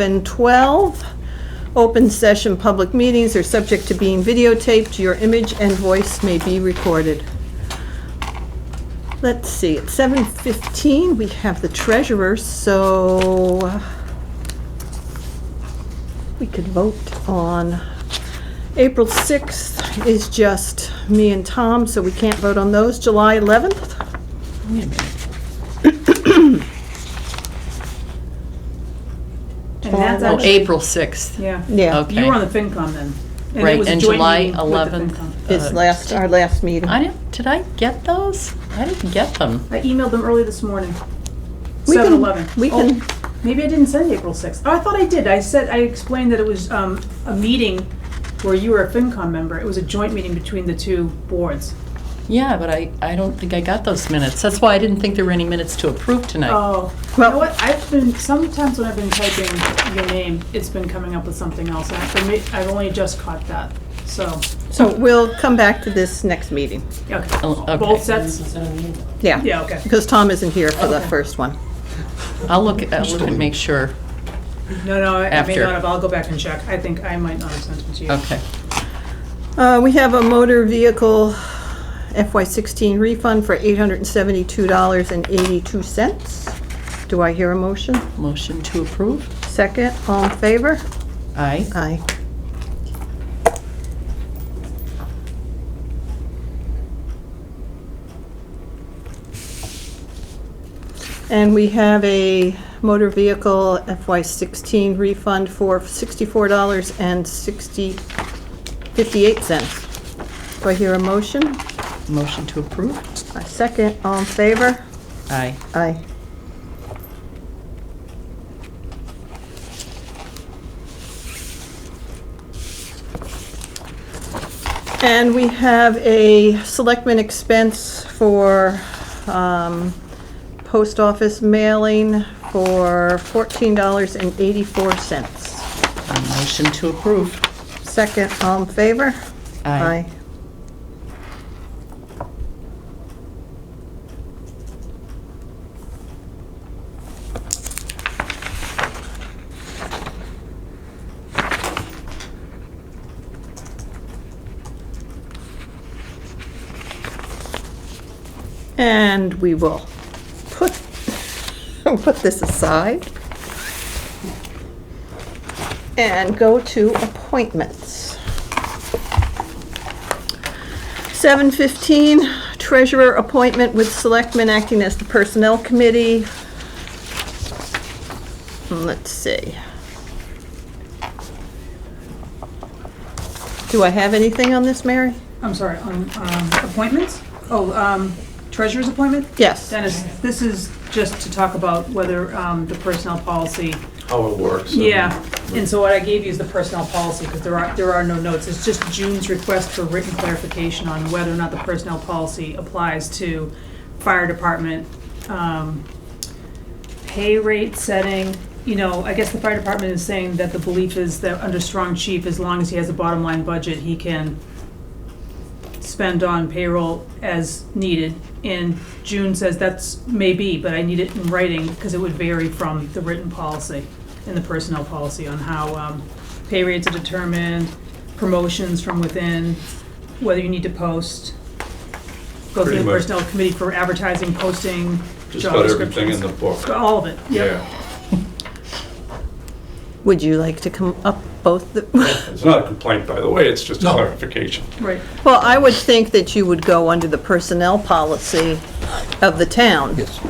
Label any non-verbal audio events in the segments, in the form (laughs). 712. Open session public meetings are subject to being videotaped. Your image and voice may be recorded. Let's see, at 7:15, we have the treasurer, so uh, we could vote on. April 6th is just me and Tom, so we can't vote on those. July 11th? And that's Oh, actually, April 6th. yeah. Yeah, You were on Okay. the FinCom then. it Right, was a and joint July meeting with the 11th. FinCom. it's uh, last, our last meeting. I didn't, did I get those? I didn't get them. I emailed them early this morning. We can- Seven eleven. Oh, we can- Maybe I didn't send April sixth. Oh, I thought I did. I said, I explained that it was, um, a meeting where you were a FinCom member. It was a joint meeting between the two boards. Yeah, but I, I don't think I got those minutes. That's why I didn't think there were any minutes to approve tonight. Oh, you Well- know what? I've been, sometimes when I've been typing your name, it's been coming up with something else. And for me, I've only just caught that, so, So we'll come back to this next meeting. okay. Oh, okay. (laughs) Both sets? Yeah, Yeah, okay. because Tom isn't here for the first one. I'll look, at- I'll look and make sure. No, no, I I may After. not have, I'll go back and check. I think I might not have sent it to you. Okay. Uh, We have a motor vehicle FY16 refund for $872.82. Do I hear a motion? Motion to approve? Second, all in favor? Aye. Aye. And we have a motor vehicle FY16 refund for $64.60, 58 cents. Do I hear a motion? Motion to approve? A second, all in favor? Aye. Aye. And we have a selectman expense for um, post office mailing for $14.84. Motion to approve? Second, all in favor? Aye. And we will put, (laughs) put this aside and go to appointments. 7:15, treasurer appointment with selectmen acting as the personnel committee. Let's see. Do I have anything on this, Mary? I'm sorry, on um, appointments? Oh, um, treasurer's appointment? Yes. Dennis, this is just to talk about whether um, the personnel policy, how it works. and- yeah. And so what I gave you is the personnel policy, because there are, there are no notes. It's just June's request for written clarification on whether or not the personnel policy applies to fire department, um, pay rate setting, you know, I guess the fire department is saying that the belief is that under strong chief, as long as he has a bottom line budget, he can spend on payroll as needed. And June says that's maybe, but I need it in writing because it would vary from the written policy and the personnel policy on how um, pay rates are determined, promotions from within, whether you need to post, go through Pretty the much. personnel committee for advertising, posting, Just job about everything descriptions. in the book. All of it, yeah. Yeah, Would you like to come up both? the- (laughs) it's not a complaint, by the way, it's just a clarification. Right. Well, I would think that you would go under the personnel policy of the town. Yes.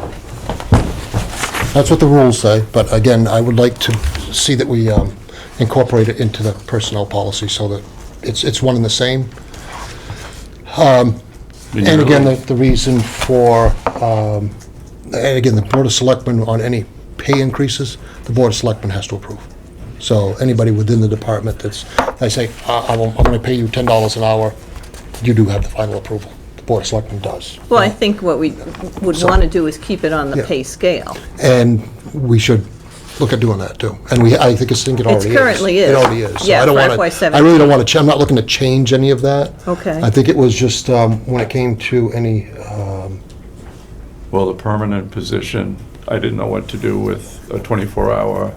That's what the rules say, but again, I would like to see that we um, incorporate it into the personnel policy so that it's, it's one and the same. Um, And again, the, the reason for, um, and again, the Board of Selectmen on any pay increases, the Board of Selectmen has to approve. So anybody within the department that's, I say, I, I won't- I'm gonna pay you ten dollars an hour, you do have the final approval. The Board of Selectmen does. Well, I think what we would want to do is keep it on the Yeah. pay scale. And we should look at doing that, too. And we, I think it's, think it already is. currently is. It already is. So Yeah, I don't for wanna- FY17. I really don't want to, I'm not looking to change any of that. Okay. I think it was just, um, when it came to any, um, Well, the permanent position, I didn't know what to do with a 24-hour